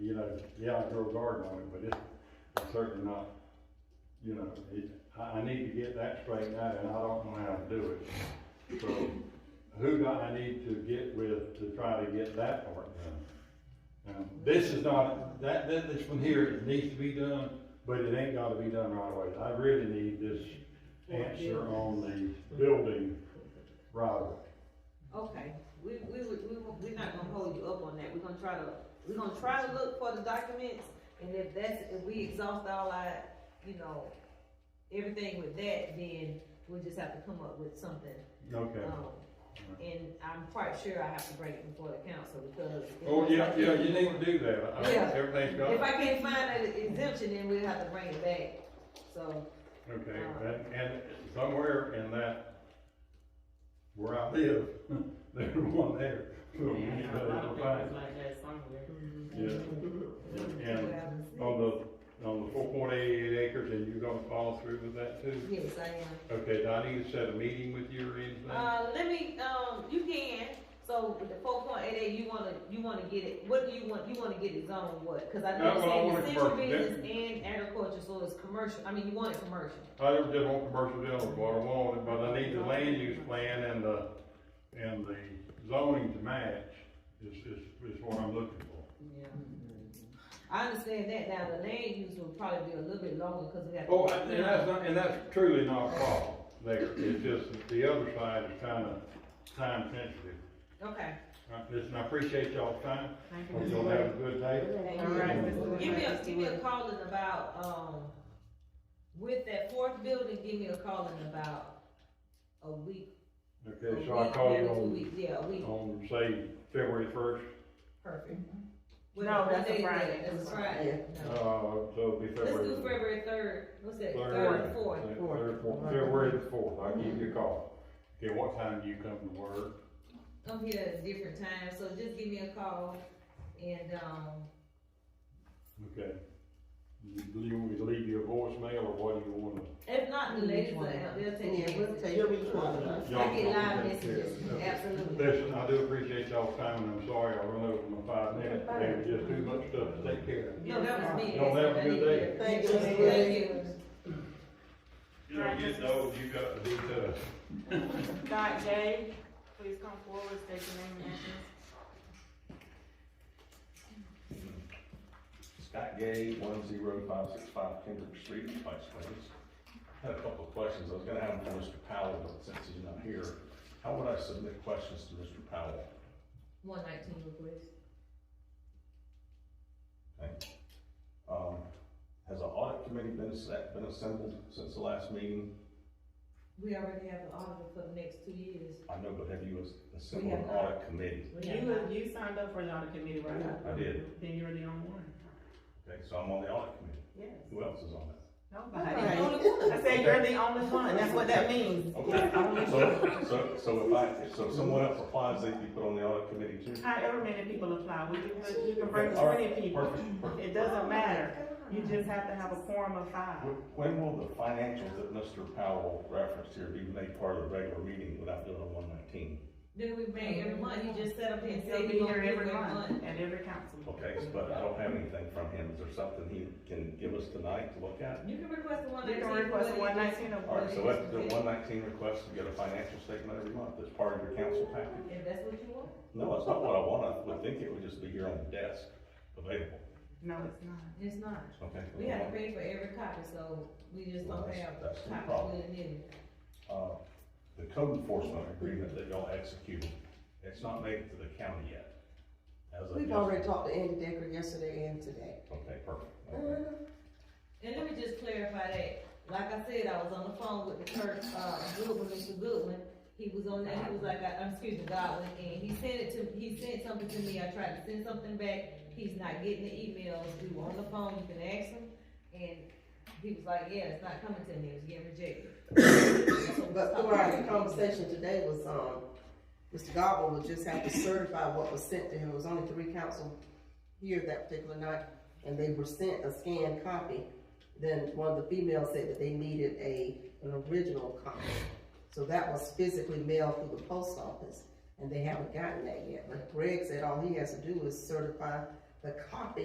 know, yeah, I grow a garden on it, but it's, it's certainly not, you know, it, I, I need to get that straightened out, and I don't know how to do it. So, who do I need to get with to try to get that part done? Um, this is not, that, that, this one here, it needs to be done, but it ain't gotta be done right away. I really need this answer on the building right away. Okay, we, we, would- we, won't- we're not gonna hold you up on that, we're gonna try to, we're gonna try to look for the documents, and if that's, if we exhaust all our, you know, everything with that, then we'll just have to come up with something, Okay. um, and I'm quite sure I have to bring it before the council, because. if- Oh, yeah, yeah, you need to do that. I- Yeah. Everything's got. If I can't find an exemption, then we'll have to bring it back, so, Okay, and, and somewhere in that, where I live, there's one there. So we Yeah, I know a lot better of find papers like that somewhere. it. Yeah, Oh. we'll and have to see. on the, on the four point eight eight acres, and you're gonna follow through with that too? Yes, I am. Okay, do I need to set a meeting with you or anything? Uh, let me, um, you can, so with the four point eight eight, you wanna, you wanna get it, what do you want, you wanna get it zoned what? Cause I know Uh, well, I you want said it essential commercial, business and agriculture, so it's commercial, I mean, you want it commercial. I don't just want commercial dealing, but I want it, but I need the land use plan and the, and the zoning to match is, is, is what I'm looking for. Yeah. I understand that, now the land use will probably be a little bit longer, cause we have. to- Oh, and and that's not, and that's truly not a problem there, it's just that the other side is kinda time sensitive. Okay, Uh, Listen, I appreciate y'all's time, Thank you, hope Mr. y'all have a Wade. good day. All right, Mr. Wade. give me a, give me a call in about, um, with that fourth building, give me a call in about a week. a Okay, so I week, call maybe you two on, weeks. Yeah, a week. on, say, February first, Perfect. No, What that's a day is that? Friday. Mm-hmm. That's a Friday. uh, No. so it'll be Let's do February. February third, what's that, third, Third, and fourth? third, fourth, February the fourth, I'll give you a call. Okay, what time do you come to work? I'm here at Oh, a different time, so just give me a call and, um, Okay. Do you want me to leave you a voicemail, or what do you wanna? if not, the ladies will, they'll take. Yeah, we'll take it. each one of us. I get live messages, absolutely. Listen, I do appreciate y'all's time, and I'm sorry I run over my five minutes, there was just too much stuff to take care of. No, that was me. Y'all have a good day. Thank you, Ms. Thank you. You know, getting old, you got to be tough. Dot J, please come forward, state your name and address. Scott Gay, one zero five six five Kendrick Street, Vice Plains. Had a couple of questions, I was gonna have them for Mr. Powell, but since he's not here, how would I submit questions to Mr. Powell? One nineteen request. Thank you. Um, has an audit committee been set, been assembled since the last meeting? We already have an auditor for the next two years. I know, but have you as- assembled have an not. audit committee? You, you signed up for the audit committee, right? I did. Then you're the only one. Okay, so I'm on the audit committee, Yes. who else is on it? Nobody. I said you're the only one, that's what that means. Okay, so, so, so if I, so if someone else applies, they'd be put on the audit committee too? However many people apply, we can, put- you can bring Okay, all right, twenty people. Perfect, perfect. It doesn't matter. You just have to have a quorum of five. Wh- When will the financials that Mr. Powell referenced here be made part of the regular meeting without doing a one nineteen? Then we pay every month, you just set up and say They'll be you here every month. month at every council. Okay, but I don't have anything from him. Is there something he can give us tonight to look at? You can request the one You nineteen. can request one nineteen All or right, so that's the one nineteen request to get a financial statement every month. That's part of your council package. If that's what you want. No, that's not what I want. I would think it would just be here on the desk, available. No, it's not. It's not. Okay. We have to pay for every copy, so we just Well, don't that's- have that's the copies problem. with it in. Uh, The code enforcement agreement that y'all executed, it's not made to the county yet. As of We've yes- already talked to Andy Decker yesterday and today. Okay, perfect. Uh, Okay. And let me just clarify that, like I said, I was on the phone with the clerk, uh, Goodwin, Mr. Goodwin. He was on there, he was like, I, I'm, excuse me, Godwin, and he sent it to, he sent something to me, I tried to send something back. He's not getting the emails, we were on the phone, you can ask him, and he was like, yeah, it's not coming to me, it was getting rejected. That's what we But talked through our about. conversation today was, um, Mr. Gobble would just have to certify what was sent to him. It was only three council here that particular night, and they were sent a scanned copy. Then one of the females said that they needed a, an original copy. So that was physically mailed through the post office, and they haven't gotten that yet. But Greg said all he has to do is certify the copy